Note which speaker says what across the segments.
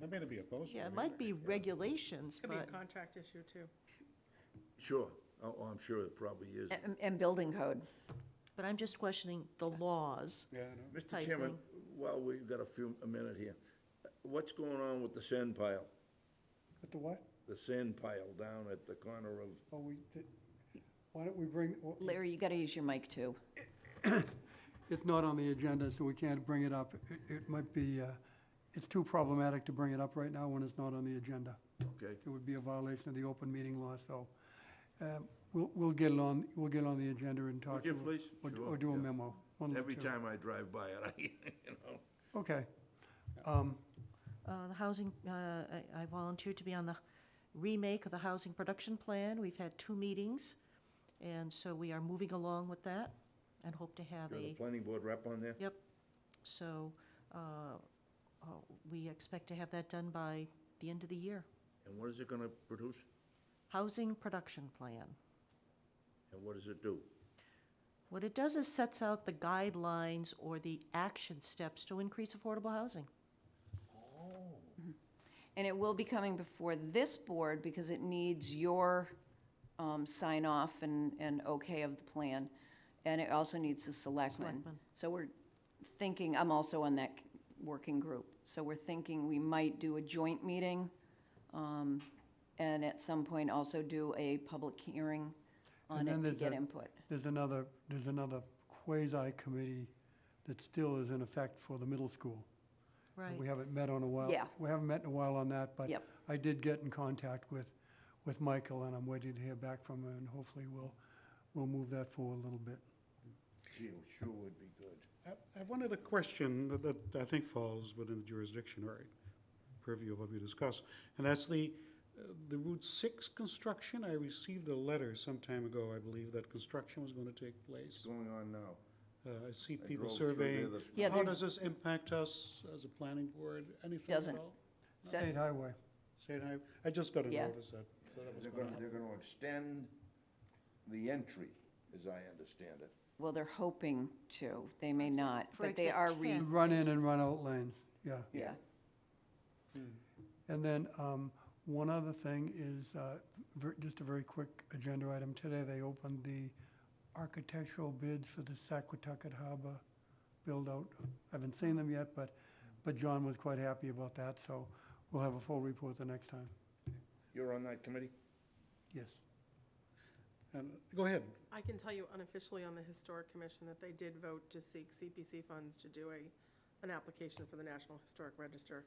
Speaker 1: That may not be opposed. to
Speaker 2: Yeah, it
Speaker 1: it
Speaker 2: might
Speaker 1: either.
Speaker 2: be regulations,
Speaker 3: Could be a
Speaker 2: but,
Speaker 3: contract issue, too.
Speaker 4: Sure, oh, oh, I'm sure it probably is.
Speaker 5: And, and building code.
Speaker 2: but I'm just questioning the laws.
Speaker 1: Yeah, I know.
Speaker 4: Mr.
Speaker 2: type
Speaker 4: Chairman,
Speaker 2: thing.
Speaker 4: while we've got a few, a minute here, what's going on with the sand pile?
Speaker 6: But the what?
Speaker 4: The sand pile down at the corner of,
Speaker 6: Oh, we, did- why don't we bring, wh-
Speaker 5: Larry, you gotta use your mic too.
Speaker 6: it's not on the agenda, so we can't bring it up. It- It might be, uh, it's too problematic to bring it up right now when it's not on the agenda.
Speaker 4: okay,
Speaker 6: It would be a violation of the open meeting law, so um, we'll, we'll get it on, we'll get it on the agenda and talk.
Speaker 4: Would you
Speaker 6: to-
Speaker 4: please?
Speaker 6: or-
Speaker 4: Sure,
Speaker 6: Or do a
Speaker 4: yeah.
Speaker 6: memo. one of the
Speaker 4: every
Speaker 6: two.
Speaker 4: time I drive by it, I, you know.
Speaker 6: Okay. Um,
Speaker 2: Uh, The housing, uh, I I volunteered to be on the remake of the housing production plan. We've had two meetings, and so we are moving along with that and hope to have
Speaker 4: You're the
Speaker 2: a,
Speaker 4: planning board rep on there?
Speaker 2: yep. So uh, uh, we expect to have that done by the end of the year.
Speaker 4: And what is it gonna produce?
Speaker 2: Housing production plan.
Speaker 4: And what does it do?
Speaker 2: What it does is sets out the guidelines or the action steps to increase affordable housing.
Speaker 5: And it will be coming before this board because it needs your um, sign off and, and okay of the plan. And it also needs the selectmen.
Speaker 2: Selectmen.
Speaker 5: So we're thinking, I'm also on that c- working group. So we're thinking we might do a joint meeting um, and at some point also do a public hearing on
Speaker 6: And then
Speaker 5: it to
Speaker 6: there's
Speaker 5: get
Speaker 6: a-
Speaker 5: input.
Speaker 6: There's another, there's another quasi-committee that still is in effect for the middle school.
Speaker 2: Right.
Speaker 6: We haven't met on a while.
Speaker 5: Yeah.
Speaker 6: We haven't met in a while on that, but
Speaker 5: Yep.
Speaker 6: I did get in contact with, with Michael, and I'm waiting to hear back from him, and hopefully we'll, we'll move that forward a little bit.
Speaker 4: Gee, it sure would be good.
Speaker 1: I- I have one other question that, that I think falls within the jurisdiction or purview of what we discuss, and that's the, uh, the Route Six construction. I received a letter some time ago, I believe, that construction was gonna take place.
Speaker 4: What's going on now?
Speaker 1: Uh, I see
Speaker 4: I
Speaker 1: people
Speaker 4: drove through there
Speaker 1: surveying.
Speaker 4: this
Speaker 5: Yeah,
Speaker 1: How
Speaker 5: they're-
Speaker 1: does this impact us as a planning board? Anything at
Speaker 5: Doesn't.
Speaker 1: all?
Speaker 5: That-
Speaker 6: State highway.
Speaker 1: State Highway, I just got a
Speaker 5: Yeah.
Speaker 1: notice that, so that was
Speaker 4: They're
Speaker 1: going
Speaker 4: gonna, they're gonna extend the entry, as I understand it.
Speaker 5: Well, they're hoping to, they may not,
Speaker 2: for
Speaker 5: but they
Speaker 2: exit
Speaker 5: are re,
Speaker 2: 10.
Speaker 6: Run in and run out lanes, yeah.
Speaker 5: yeah.
Speaker 6: And then, um, one other thing is, uh, ver- just a very quick agenda item. Today, they opened the architectural bids for the Saquotucket Harbor build-out. I haven't seen them yet, but, but John was quite happy about that, so we'll have a full report the next time.
Speaker 4: You're on that committee?
Speaker 6: Yes.
Speaker 1: And, go ahead.
Speaker 3: I can tell you unofficially on the Historic Commission that they did vote to seek CPC funds to do a, an application for the National Historic Register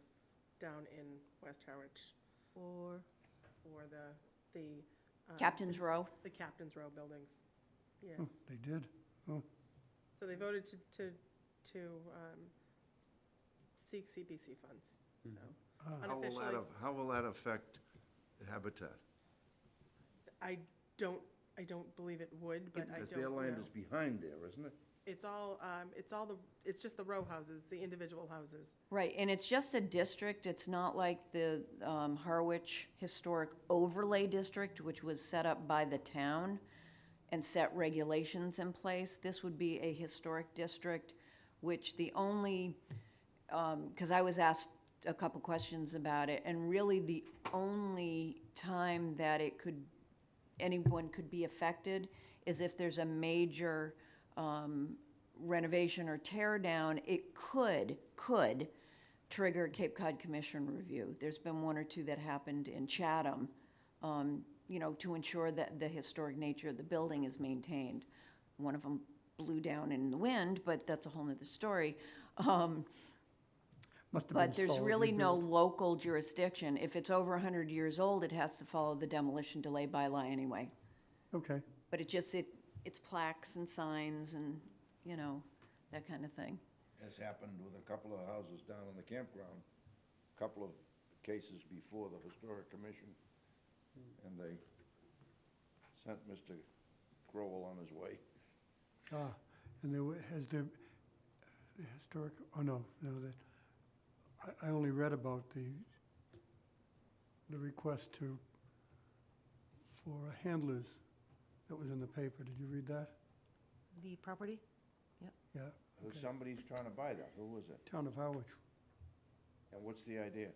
Speaker 3: down in West Harwich
Speaker 2: For,
Speaker 3: for the, the. um,
Speaker 5: Captain's Row,
Speaker 3: The Captain's Row buildings. Yes.
Speaker 2: Hmm.
Speaker 6: Oh, They did.
Speaker 3: So they voted to, to, to um, seek CPC funds, so
Speaker 6: Ah.
Speaker 4: How will that,
Speaker 3: unofficially.
Speaker 4: af- how will that affect Habitat?
Speaker 3: I don't, I don't believe it would, but I
Speaker 4: Because
Speaker 3: don't
Speaker 4: their land
Speaker 3: know.
Speaker 4: is behind there, isn't it?
Speaker 3: It's all, um, it's all the, it's just the row houses, the individual houses.
Speaker 5: right, and it's just a district, it's not like the um, Harwich Historic Overlay District, which was set up by the town and set regulations in place. This would be a historic district, which the only, because I was asked a couple questions about it, and really the only time that it could anyone could be affected is if there's a major um, renovation or tear down, it could, could trigger a Cape Cod Commission review. There's been one or two that happened in Chatham, um, you know, to ensure that the historic nature of the building is maintained. One of them blew down in the wind, but that's a whole nother story. Um,
Speaker 6: Must have been
Speaker 5: but there's
Speaker 6: solidly
Speaker 5: really no
Speaker 6: built.
Speaker 5: local jurisdiction. If it's over 100 years old, it has to follow the demolition delay bylaw anyway.
Speaker 6: Okay,
Speaker 5: But it just, it, it's plaques and signs and, you know, that kind of thing.
Speaker 4: Has happened with a couple of houses down on the campground, a couple of cases before the Historic Commission,
Speaker 3: Hmm.
Speaker 4: and they sent Mr. Crowell on his way.
Speaker 6: ah, and there, wa- has there, the historic, oh, no, no, that, I, I only read about the, the request to, for handlers that was in the paper, did you read that?
Speaker 2: the property?
Speaker 6: Yeah,
Speaker 4: Who- Somebody's trying to buy that, who was it?
Speaker 6: Town of Howard,
Speaker 4: And what's the idea?